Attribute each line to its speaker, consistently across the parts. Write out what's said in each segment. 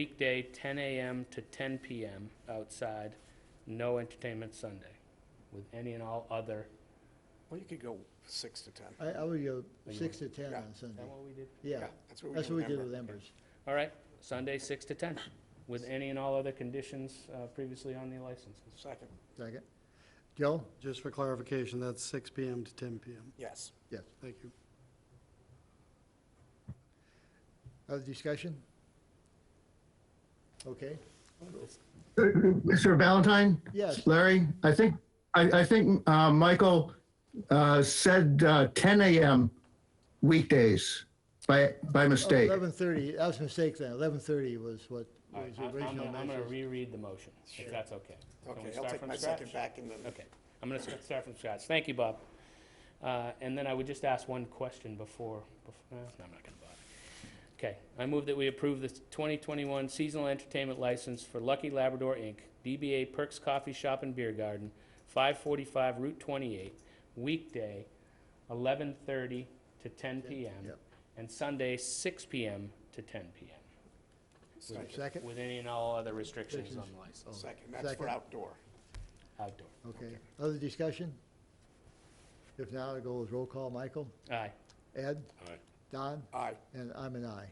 Speaker 1: weekday, ten AM to ten PM outside, no entertainment Sunday, with any and all other.
Speaker 2: Well, you could go six to 10.
Speaker 3: I, I would go
Speaker 1: Are you-
Speaker 3: six to ten
Speaker 2: Yeah.
Speaker 3: on Sunday.
Speaker 1: what we did?
Speaker 3: Yeah,
Speaker 2: That's what
Speaker 3: that's what we
Speaker 2: with
Speaker 3: did
Speaker 2: Ember.
Speaker 3: with Embers.
Speaker 1: All right, Sunday, six to ten, with any and all other conditions uh, previously on the licenses.
Speaker 2: Second,
Speaker 3: Second. Joe?
Speaker 4: Just for clarification, that's 6 PM to 10 PM.
Speaker 2: yes.
Speaker 3: Yes.
Speaker 4: Thank you.
Speaker 3: Other discussion? Okay.
Speaker 5: Mr. Valentine?
Speaker 3: Yes.
Speaker 5: Larry, I think, I, I think uh, Michael uh, said uh, 10 a.m. weekdays by, by mistake.
Speaker 3: Oh, Eleven thirty, that was a mistake then. Eleven thirty was what
Speaker 1: All right,
Speaker 3: was
Speaker 1: I- I'm
Speaker 3: original
Speaker 1: gonna- I'm gonna
Speaker 3: message.
Speaker 1: reread the motion, if that's okay. Can we
Speaker 2: Okay, I'll
Speaker 1: start
Speaker 2: take
Speaker 1: from
Speaker 2: my
Speaker 1: scratch?
Speaker 2: second back and then,
Speaker 1: Okay, I'm going to start from scratch. Thank you, Bob. Uh, And then I would just ask one question before, bef- uh, no, I'm not going to bother. Okay, I move that we approve the 2021 seasonal entertainment license for Lucky Labrador, Inc., DBA Perks Coffee Shop and Beer Garden, 545 Route 28, weekday, 11:30 to 10 PM,
Speaker 3: Yep.
Speaker 1: and Sunday, 6 PM to 10 PM,
Speaker 2: second,
Speaker 3: Second,
Speaker 1: with any and all other restrictions on the
Speaker 3: Oh.
Speaker 1: license,
Speaker 2: second, that's for
Speaker 3: Second.
Speaker 2: outdoor.
Speaker 1: outdoor.
Speaker 3: okay. Other discussion? If not, I'll go with roll call. Michael?
Speaker 1: Aye.
Speaker 3: Ed?
Speaker 1: Aye.
Speaker 3: Don?
Speaker 2: Aye,
Speaker 3: And I'm an aye.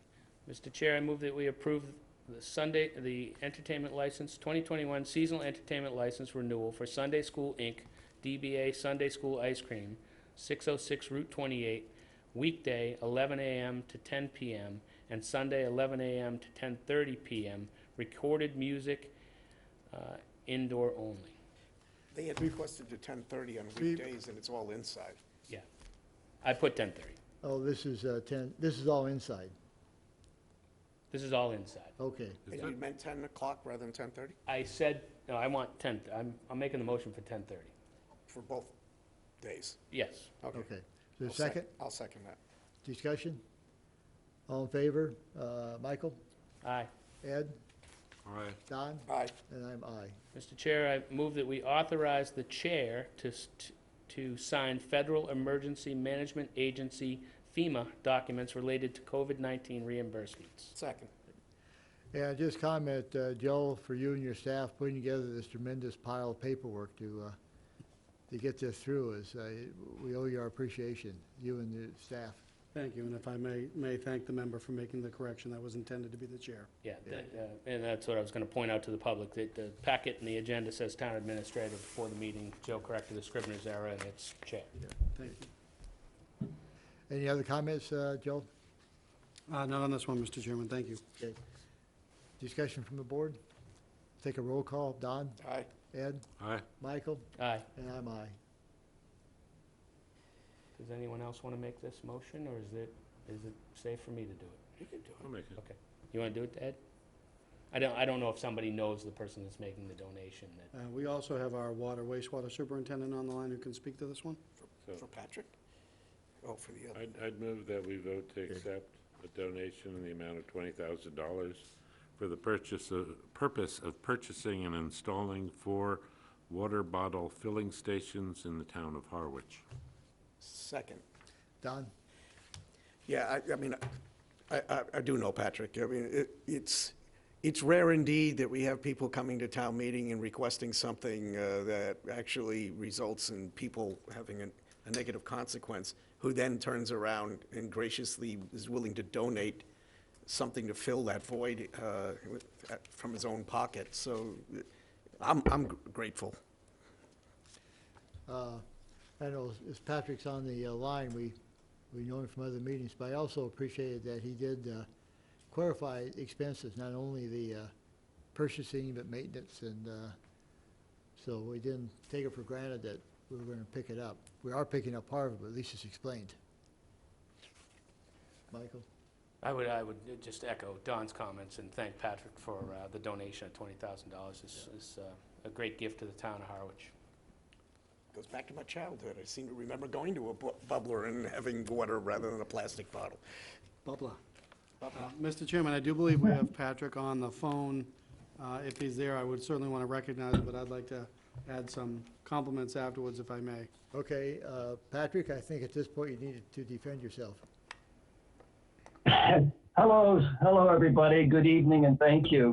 Speaker 1: Mr. Chair, I move that we approve the Sunday, the entertainment license, 2021 seasonal entertainment license renewal for Sunday School, Inc., DBA Sunday School Ice Cream, 606 Route 28, weekday 11 a.m. to 10 p.m., and Sunday 11 a.m. to 10:30 p.m., recorded music uh, indoor only.
Speaker 2: they had requested to 10:30 on weekdays and it's all inside.
Speaker 1: Yeah. I put 10:30.
Speaker 3: Oh, this is uh, ten, this is all inside.
Speaker 1: This is all inside.
Speaker 3: Okay,
Speaker 2: And you meant 10 o'clock rather than 10:30
Speaker 1: I said, no, I want 10, I'm I'm making the motion for 10:30.
Speaker 2: for both days?
Speaker 1: Yes.
Speaker 2: Okay.
Speaker 3: okay. So
Speaker 2: I'll sec-
Speaker 3: second,
Speaker 2: I'll second that.
Speaker 3: discussion? All in favor? Uh, Michael?
Speaker 1: Aye.
Speaker 3: Ed?
Speaker 6: All right.
Speaker 3: Don?
Speaker 2: Aye,
Speaker 3: And I'm aye.
Speaker 1: Mr. Chair, I move that we authorize the chair to, s- t- to sign Federal Emergency Management Agency FEMA documents related to COVID-19 reimbursements.
Speaker 2: second,
Speaker 3: And just comment, uh, Joe, for you and your staff putting together this tremendous pile of paperwork to, uh, to get this through is, uh, we owe you our appreciation, you and the staff.
Speaker 4: Thank you, and if I may, may thank the member for making the correction that was intended to be the chair.
Speaker 1: Yeah, that, uh, and that's what I was going to point out to the public, that the packet and the agenda says town administrator before the meeting. Joe corrected the scrivener's error, and it's chair.
Speaker 4: Thank you.
Speaker 3: Any other comments, uh, Joe?
Speaker 4: Uh, Not on this one, Mr. Chairman, thank you.
Speaker 3: Okay. Discussion from the board? Take a roll call. Don,
Speaker 2: aye,
Speaker 3: Ed,
Speaker 6: All right.
Speaker 3: Michael,
Speaker 1: Aye.
Speaker 3: and I'm aye.
Speaker 1: Does anyone else want to make this motion, or is it, is it safe for me to do it? You can do
Speaker 6: I'll make it.
Speaker 1: Okay. You want to do it, Ed? I don't, I don't know if somebody knows the person that's making the donation that
Speaker 4: Uh, We also have our water wastewater superintendent on the line who can speak to this one.
Speaker 2: for Patrick? Oh, for the other,
Speaker 6: I'd, I'd move that we vote to accept a donation in the amount of twenty thousand dollars for the purchase of, purpose of purchasing and installing four water bottle filling stations in the town of Harwich.
Speaker 2: second.
Speaker 3: Don?
Speaker 2: Yeah, I, I mean, I, I, I do know Patrick. I mean, it, it's, it's rare indeed that we have people coming to town meeting and requesting something uh, that actually results in people having a, a negative consequence, who then turns around and graciously is willing to donate something to fill that void uh, with- uh, from his own pocket. So uh, I'm, I'm grateful.
Speaker 3: Uh, I know, as- as Patrick's on the uh, line, we, we know him from other meetings, but I also appreciated that he did uh, clarify expenses, not only the uh, purchasing, but maintenance, and uh, so we didn't take it for granted that we were gonna pick it up. We are picking up part of it, but at least it's explained. Michael?
Speaker 1: I would, I would just echo Don's comments and thank Patrick for uh, the donation of twenty thousand dollars. It's, it's uh, a great gift to the town of Harwich.
Speaker 2: Goes back to my childhood. I seem to remember going to a bu- bubbler and having water rather than a plastic bottle.
Speaker 4: Bubla. Uh, Mr. Chairman, I do believe we have Patrick on the phone. Uh, If he's there, I would certainly want to recognize him, but I'd like to add some compliments afterwards, if I may.
Speaker 3: Okay, uh, Patrick, I think at this point you needed to defend yourself.
Speaker 7: Hello, hello, everybody. Good evening and thank you.